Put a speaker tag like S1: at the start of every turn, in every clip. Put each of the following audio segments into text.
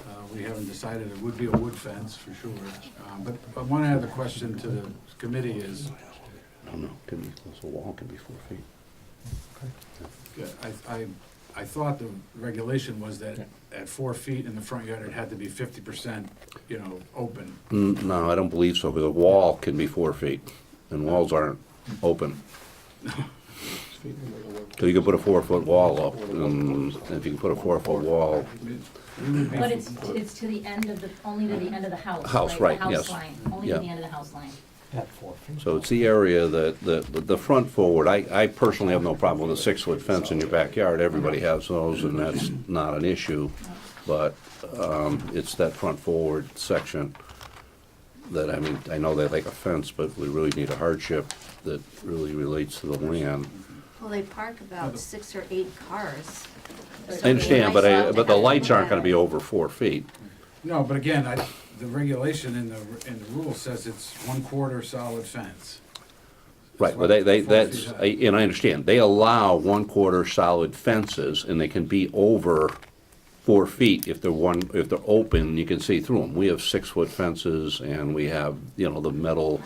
S1: Uh, we haven't decided, it would be a wood fence for sure. Um, But but one other question to the committee is,
S2: I don't know, could be, this wall could be four feet.
S1: Yeah, I, I, I thought the regulation was that at four feet in the front yard, it had to be fifty percent, you know, open.
S2: Mm, No, I don't believe so, because a wall can be four feet, and walls aren't open. So you can put a four-foot wall up, and if you can put a four-foot wall,
S3: But it's, it's to the end of the, only to the end of the house, right?
S2: Mm-hmm. House, right,
S3: The house
S2: yes.
S3: line, only to
S2: Yeah.
S3: the end of the house line.
S4: At four feet.
S2: so it's the area that, the, the- the front forward, I, I personally have no problem with a six-foot fence in your backyard, everybody has those, and that's not an issue, but, um, it's that front forward section that, I mean, I know they like a fence, but we really need a hardship that really relates to the land.
S5: Well, they park about six or eight cars.
S2: I understand, but I, but the lights aren't gonna be
S5: open.
S2: over four feet.
S1: No, but again, I, the regulation in the, in the rule says it's one quarter solid fence.
S2: Right, well, they, they,
S1: Four feet
S2: that's,
S1: high.
S2: I- and I understand, they allow one-quarter solid fences, and they can be over four feet if they're one, if they're open, you can see through them. We have six-foot fences, and we have, you know, the metal,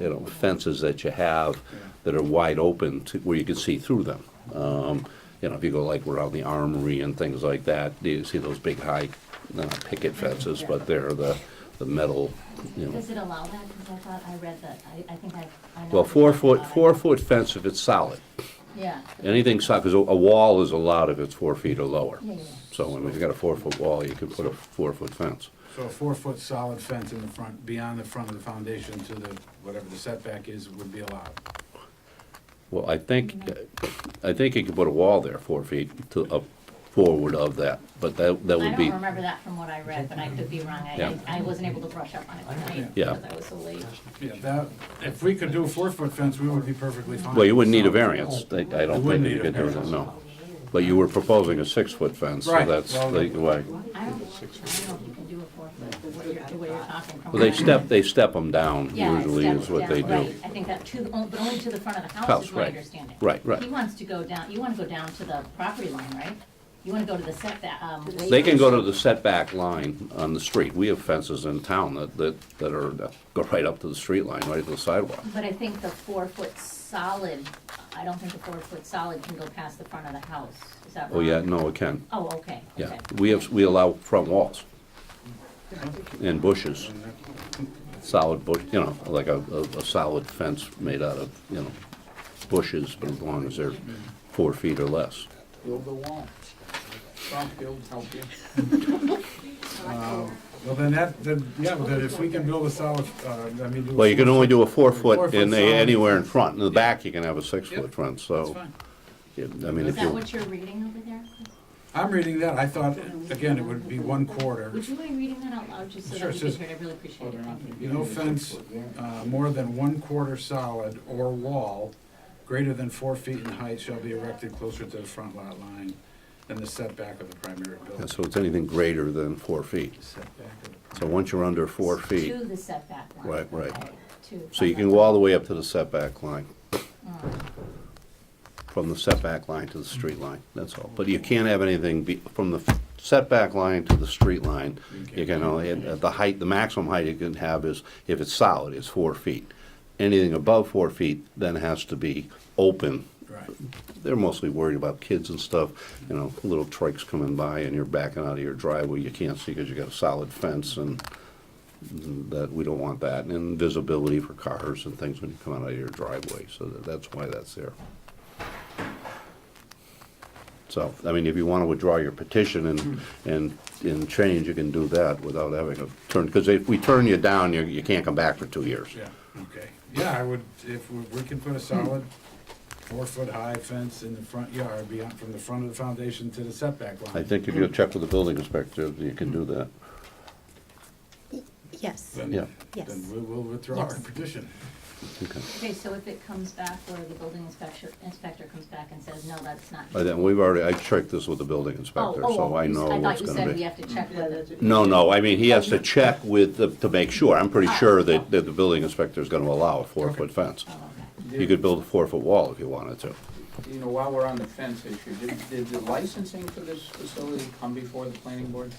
S2: you know, fences that you have that are wide open to, where you can see through them. Um, you know, if you go like around the armory and things like that, you see those big high, uh, picket fences, but they're the, the metal, you know.
S3: Does it allow that? Because I thought I read that, I, I think I, I know.
S2: Well,
S3: what
S2: four
S3: you're talking
S2: foot,
S3: about.
S2: four foot fence if it's solid.
S3: Yeah.
S2: Anything solid, because a a wall is allowed if it's four feet or lower.
S3: Yeah, yeah, yeah.
S2: So I mean, if you've got a four foot wall, you can put a four foot fence.
S1: So a four-foot solid fence in the front, beyond the front of the foundation to the, whatever the setback is, would be allowed.
S2: Well, I think, I think you could put a wall there, four feet to, up forward of that, but that, that
S3: I
S2: would be,
S3: don't remember that from what I read, but I could be wrong. I-
S2: Yeah.
S3: I, I wasn't able to brush up on it tonight
S2: Yeah.
S3: because I was so late.
S1: Yeah, that, if we could do a four-foot fence, we would be perfectly fine.
S2: well, you wouldn't need a variance. I I
S1: wouldn't
S2: don't think
S1: need
S2: you
S1: a
S2: could do that,
S1: variance.
S2: no. But you were proposing a six foot fence, so
S1: Right,
S2: that's
S1: well-
S2: the way.
S3: I don't, I don't know if you can do a four foot, but what you're, the way you're talking from.
S2: Well, they
S3: what I-
S2: step, they step them down
S3: Yeah, it
S2: usually
S3: steps
S2: is what they
S3: down,
S2: do.
S3: right. I think that to, the- but only to the front of the
S2: House,
S3: house is my
S2: right.
S3: understanding.
S2: Right, right.
S3: He wants to go down, you want to go down to the property line, right? You want to go to the setback, um.
S2: They can go to the setback line on the street. We have fences in town that, that, that are, that go right up to the street line, right to the sidewalk.
S3: But I think the four foot solid, I don't think the four foot solid can go past the front of the house, is that
S2: Oh,
S3: wrong?
S2: yeah, no, it can,
S3: Oh, okay,
S2: yeah.
S3: okay.
S2: We have, we allow front walls and bushes, solid bush, you know, like a, a, a solid fence made out of, you know, bushes, but as long as they're four feet or less.
S6: Build the wall. Don't build, help you.
S1: Well, then that, then, yeah, but then if we can build a solid, uh, I mean. do a
S2: Well, you can only do a four foot
S1: Four-foot
S2: in, a-
S1: solid.
S2: anywhere in front. In the back, you can have a six
S1: Yep,
S2: foot fence,
S1: That's
S2: so,
S1: fine.
S2: yeah, I mean,
S3: Is
S2: if
S3: that
S2: you,
S3: what you're reading over there?
S1: I'm reading that, I thought, again, it would be one quarter,
S3: Would you mind reading that out loud just so
S1: Sure,
S3: that
S1: it
S3: we can
S1: says-
S3: hear it? I really appreciate it, thank you.
S1: no fence, uh, more than one quarter solid or wall greater than four feet in height shall be erected closer to the front lot line than the setback of the primary
S2: yeah,
S1: building.
S2: so it's anything greater than four feet.
S1: Setback of the
S2: So once you're under four feet,
S3: To the setback line.
S2: Right, right.
S3: okay, to-
S2: so you can go all the way up to the setback line, from the setback line to the street line, that's all. But you can't have anything be, from the setback line to the street line, you can only, at the height, the maximum height you can have is, if it's solid, is four feet. Anything above four feet then has to be open.
S1: Right,
S2: They're mostly worried about kids and stuff, you know, little trikes coming by and you're backing out of your driveway, you can't see because you got a solid fence and that, we don't want that, and visibility for cars and things when you come out of your driveway, so that- that's why that's there. So, I mean, if you want to withdraw your petition and, and, and change, you can do that without having a turn, because if we turn you down, you, you can't come back for two years.
S1: yeah, okay. Yeah, I would, if we we can put a solid four-foot-high fence in the front yard beyond, from the front of the foundation to the setback line.
S2: I think if you check with the building inspector, you can do that,
S5: Yes,
S1: Then-
S2: yeah,
S5: Yes.
S1: Then we will withdraw our
S5: Yes.
S1: petition.
S2: okay.
S3: Okay, so if it comes back where the building inspector, inspector comes back and says, no, that's not.
S2: By then, we've already, I checked this with the building
S3: Oh,
S2: inspector,
S3: oh,
S2: so
S3: oh,
S2: I
S3: you s-
S2: know
S3: thought
S2: what's
S3: you said
S2: gonna
S3: we
S2: be.
S3: have to check Oh, Ah, with it.
S2: No, no, I mean, he has to check with, the to make sure, I'm pretty sure that, that the building inspector's gonna allow a four-foot fence.
S3: Oh, okay.
S2: You could build a four-foot wall if you wanted to.
S6: You know, while we're on the fence issue, did, did the licensing for this facility come before the planning board?